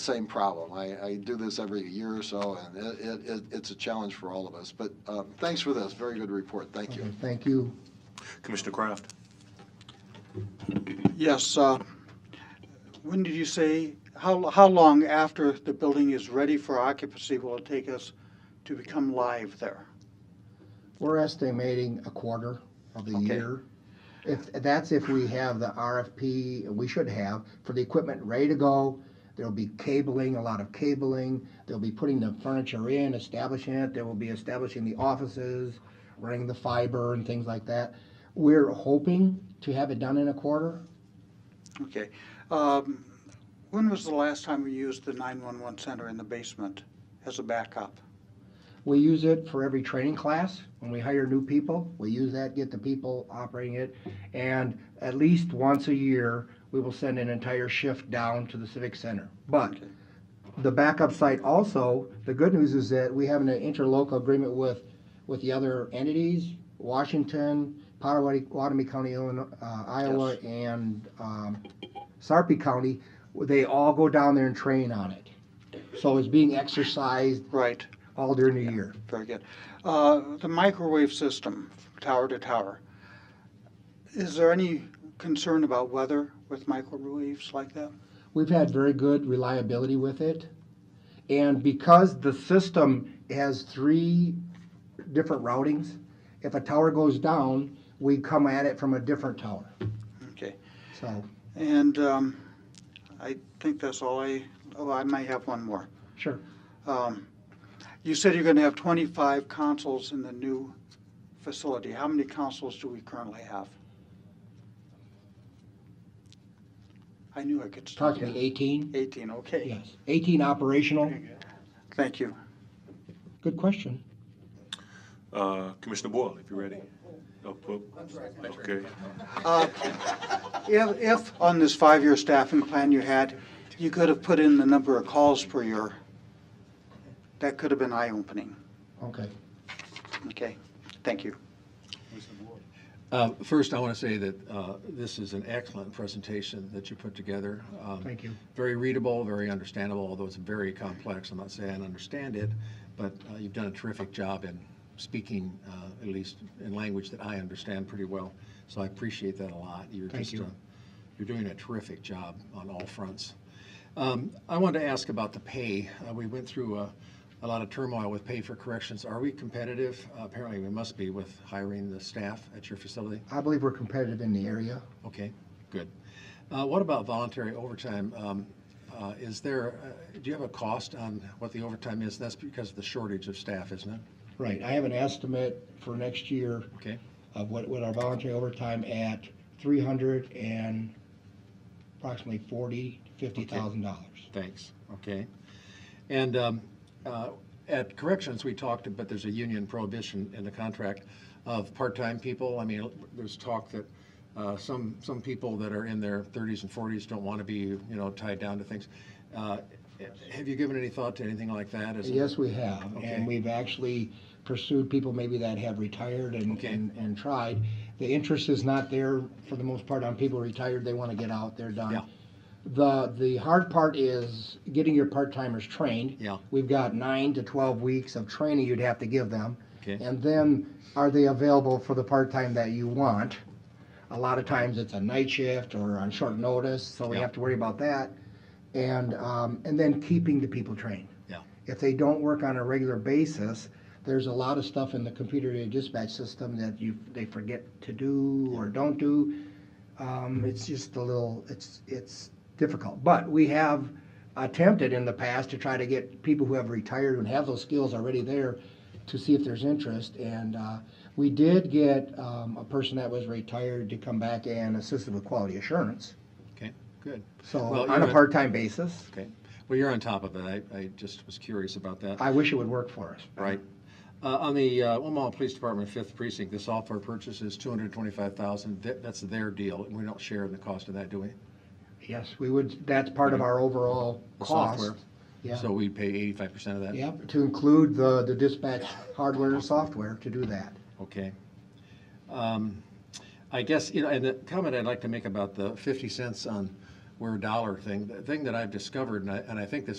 same problem. I, I do this every year or so, and it, it- it, it's a challenge for all of us. But um, thanks for this, very good report, thank you. Okay, Thank you. Commissioner Kraft? Yes, uh, when did you say, how, how long after the building is ready for occupancy will it take us to become live there? We're estimating a quarter of the Okay. year. If, that's if we have the RFP, and we should have, for the equipment ready to go. There'll be cabling, a lot of cabling. They'll be putting the furniture in, establishing it. They will be establishing the offices, running the fiber and things like that. We're hoping to have it done in a quarter. Okay. Um, When was the last time we used the 911 center in the basement as a backup? We use it for every training class. When we hire new people, we use that, get the people operating it. And at least once a year, we will send an entire shift down to the Civic Center. But Okay. the backup site also, the good news is that we have an interlocal agreement with, with the other entities, Washington, Potawatomi Potawatomi County, Illinois, uh, Iowa, and um, Sarpy County. They all go down there and train on it. So it's being exercised Right, all during the year. very good. Uh, The microwave system, tower to tower, is there any concern about weather with microwaves like that? We've had very good reliability with it. And because the system has three different routings, if a tower goes down, we come at it from a different tower. Okay. So, And um, I think that's all I, oh, I may have one more. sure. Um, You said you're going to have 25 consoles in the new facility. How many consoles do we currently have? I knew I could start. Approximately 18? 18, okay. Yes. 18 operational? Thank you. Good question. Uh, Commissioner Boyle, if you're ready. Oh, po- Okay. Uh, If, if on this five-year staffing plan you had, you could have put in the number of calls per year, that could have been eye-opening. Okay. Okay, thank you. Uh, First, I want to say that uh, this is an excellent presentation that you put together. Um, Thank you. Very readable, very understandable, although it's very complex. I'm not saying I understand it, but uh, you've done a terrific job in speaking, uh, at least in language that I understand pretty well. So I appreciate that a lot. You're Thank just, you. uh, you're doing a terrific job on all fronts. Um, I wanted to ask about the pay. Uh, We went through a a lot of turmoil with pay for corrections. Are we competitive? Uh, Apparently, we must be with hiring the staff at your facility. I believe we're competitive in the area. Okay, good. Uh, What about voluntary overtime? Um, uh, Is there, uh, do you have a cost on what the overtime is? That's because of the shortage of staff, isn't it? Right. I have an estimate for next year Okay, of what, what our voluntary overtime at 300 and approximately 40, dollars. thanks, okay. And um, uh, at corrections, we talked, but there's a union prohibition in the contract of part-time people. I mean, there's talk that uh, some, some people that are in their 30s and 40s don't want to be, you know, tied down to things. Uh, Have you given any thought to anything like that? Is it- Yes, we have, Okay. and we've actually pursued people maybe that have retired and, Okay. and, and tried. The interest is not there for the most part on people retired, they wanna get out, they're Yeah. done. The, the hard part is getting your part-timers trained. Yeah. We've got nine to twelve weeks of training you'd have to give them. Okay. And then, are they available for the part-time that you want? A lot of times it's a night shift or on short notice, so we Yeah. have to worry about that. And, um, and then keeping the people trained Yeah. if they don't work on a regular basis, there's a lot of stuff in the computer aided dispatch system that you, they forget to do or don't do. Um, it's just a little, it's, it's difficult, but we have attempted in the past to try to get people who have retired and have those skills already there to see if there's interest, and, uh, we did get, um, a person that was retired to come back and assist with quality assurance, Okay, good. so, Well, on a you're a- part-time basis, Okay, well, you're on top of it. I, I just was curious about that. I wish it would work for us. Right. Uh, on the, uh, Omaha Police Department, Fifth Precinct, the software purchase is two hundred twenty-five thousand. That, that's their deal. We don't share in the cost of that, do we? Yes, we would, that's part of our overall The cost. software. Yeah. So we pay eighty-five percent of that? Yep, to include the, the dispatch hardware and software to do that. Okay. Um, I guess, you know, and the comment I'd like to make about the 50 cents on where dollar thing. The thing that I've discovered, and I, and I think this